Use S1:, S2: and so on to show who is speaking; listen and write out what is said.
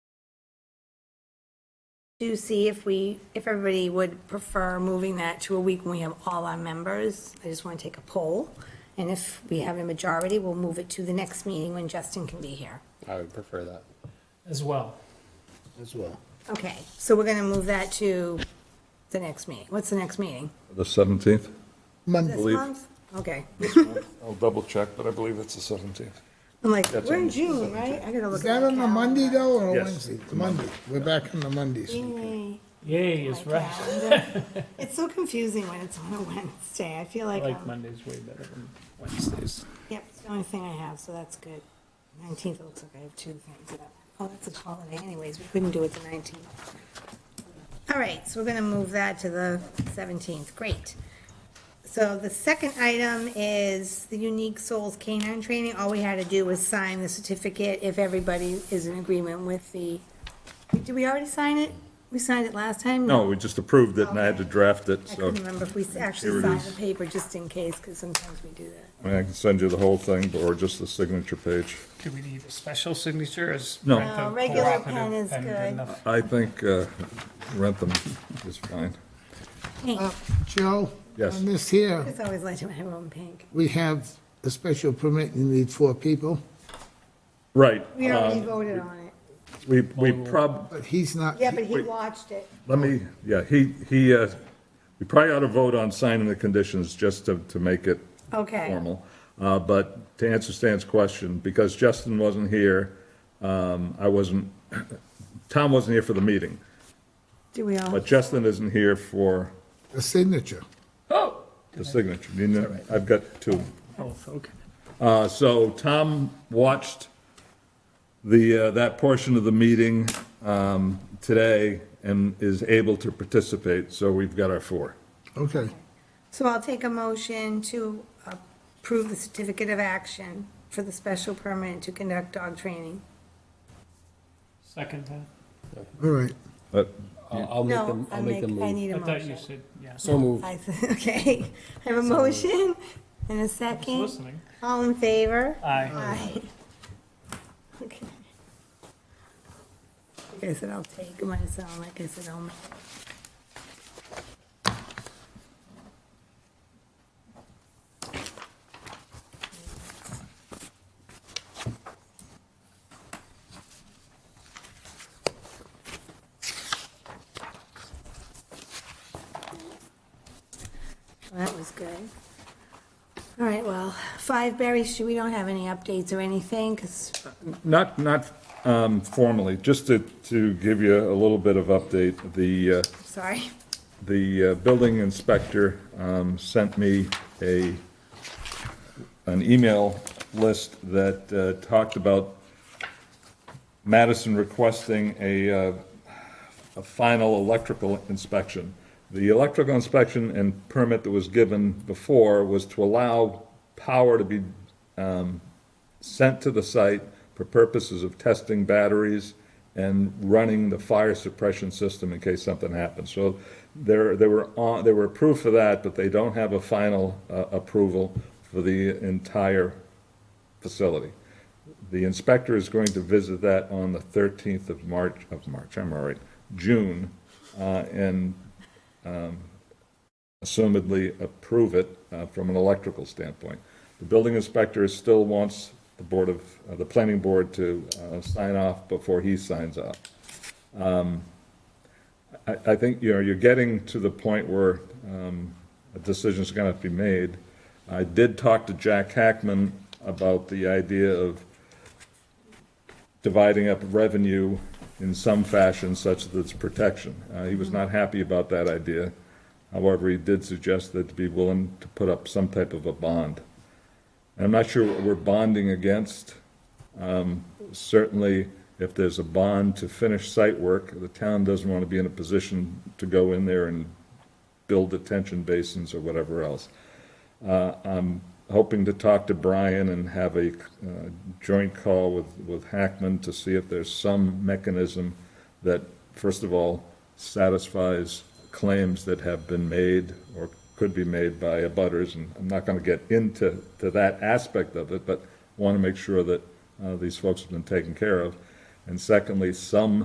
S1: to see if we, if everybody would prefer moving that to a week when we have all our members. I just want to take a poll, and if we have a majority, we'll move it to the next meeting when Justin can be here.
S2: I would prefer that.
S3: as well.
S2: As well.
S1: Okay, so we're going to move that to the next meeting. What's the next meeting?
S4: The 17th?
S1: This
S4: Believe-
S1: month? Okay.
S4: I'll double check, but I believe it's the 17th.
S1: I'm like, we're in
S4: on-
S1: June, right? I gotta look.
S5: Is
S1: at
S5: that
S1: my
S5: on a
S1: calendar.
S5: Monday though, or a
S4: Yes.
S5: Wednesday? It's Monday. We're back on the Mondays.
S1: Yay,
S3: Yay is
S1: my
S3: right.
S1: calendar. It's so confusing when it's on a Wednesday. I feel
S3: I
S1: like,
S3: like
S1: um,
S3: Mondays way better than Wednesdays.
S1: yep, it's the only thing I have, so that's good. Nineteenth, it looks like I have two things. up. Oh, that's a holiday anyways. We couldn't do it the nineteenth. All right, so we're gonna move that to the seventeenth. Great. So the second item is the Unique Souls Canine Training. All we had to do was sign the certificate if everybody is in agreement with the, did we already sign it? We signed it last time?
S4: No, we just approved it and I had to draft it,
S1: I
S4: so
S1: couldn't remember if we
S4: Here
S1: actually
S4: it
S1: signed
S4: is.
S1: the paper, just in case, because sometimes we do that.
S4: I mean, I can send you the whole thing or just the signature page.
S3: Do we need a special signature as?
S4: No.
S3: Rentham
S1: No, regular pen
S3: cooperative
S1: is
S3: pen
S1: good.
S3: enough?
S4: I think uh, Rentham is fine. Oh.
S1: Pink,
S5: Uh, Joe?
S4: Yes.
S5: On this here,
S1: it's always like to have my own pink.
S5: we have a special permit, you need four people,
S4: Right.
S1: We already voted on it.
S4: We, we prob,
S5: but he's not.
S1: Yeah, but he
S4: wait.
S1: watched it.
S4: let me, yeah, he, he, uh, we probably ought to vote on signing the conditions just to, to make it
S1: Okay.
S4: formal. Uh, But to answer Stan's question, because Justin wasn't here, um, I wasn't, Tom wasn't here for the meeting,
S1: Do we all?
S4: but Justin isn't here for
S5: A signature.
S3: Oh,
S4: the signature. You know, I've got two.
S3: oh, okay.
S4: Uh, so Tom watched the, uh, that portion of the meeting, um, today and is able to participate, so we've got our four.
S5: Okay.
S1: So I'll take a motion to approve the certificate of action for the special permit to conduct dog training.
S3: Second time.
S5: All right.
S4: But
S2: I'll I'll make
S1: No,
S2: them,
S1: I
S2: I'll make
S1: make,
S2: them
S1: I
S2: move.
S1: need a
S3: I thought you
S1: motion.
S3: said, yeah.
S2: So moved.
S1: I th- Okay, I have a motion and a second.
S3: Listening.
S1: All in favor?
S3: Aye.
S1: Aye. Okay. Like I said, I'll take them, I sound like I said, I'll. That was good. All right, well, Five Berry Street, we don't have any updates or anything, because
S4: Not, not um, formally, just to, to give you a little bit of update, the, uh,
S1: Sorry.
S4: the uh, building inspector um, sent me a, an email list that uh, talked about Madison requesting a, uh, a final electrical inspection. The electrical inspection and permit that was given before was to allow power to be sent to the site for purposes of testing batteries and running the fire suppression system in case something happens. So there, they were on, they were approved for that, but they don't have a final uh, approval for the entire facility. The inspector is going to visit that on the 13th of March, of March, I'm all right, June, uh, and assumedly approve it uh, from an electrical standpoint. The building inspector still wants the board of, uh, the planning board to uh, sign off before he signs off. Um, I, I think, you know, you're getting to the point where um, a decision's going to be made. I did talk to Jack Hackman about the idea of dividing up revenue in some fashion such that it's protection. Uh, He was not happy about that idea. However, he did suggest that to be willing to put up some type of a bond. And I'm not sure what we're bonding against. Um, Certainly, if there's a bond to finish site work, the town doesn't want to be in a position to go in there and build detention basins or whatever else. Uh, I'm hoping to talk to Brian and have a uh, joint call with, with Hackman to see if there's some mechanism that, first of all, satisfies claims that have been made or could be made by abutters, and I'm not going to get into, to that aspect of it, but want to make sure that uh, these folks have been taken care of. And secondly, some